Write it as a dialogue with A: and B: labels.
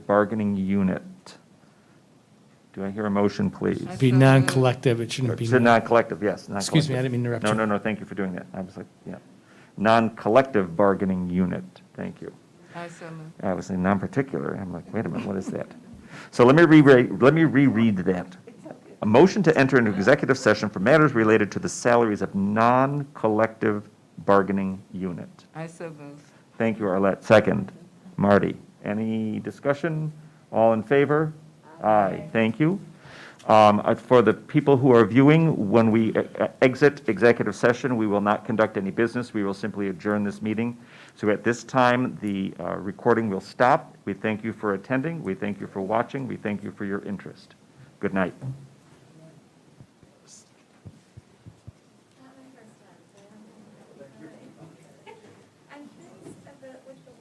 A: bargaining unit. Do I hear a motion, please?
B: I-
C: Be non-collective, it shouldn't be.
A: Should not collective, yes, not collective.
C: Excuse me, I didn't mean to interrupt
A: No,
C: you.
A: no, no, thank you for doing that. I was like, yeah. Non-collective bargaining unit, thank you.
B: I so moved.
A: I was in non-particular, I'm like, wait a minute, what is that? So let me reread, let me reread that. A motion to enter into executive session for matters related to the salaries of non-collective bargaining unit.
B: I so moved.
A: Thank you, Arlette. Second, Marty. Any discussion? All in favor? Aye. Thank you. Um, uh, For the people who are viewing, when we uh, uh, exit executive session, we will not conduct any business. We will simply adjourn this meeting. So at this time, the uh, recording will stop. We thank you for attending. We thank you for watching. We thank you for your interest. Good night.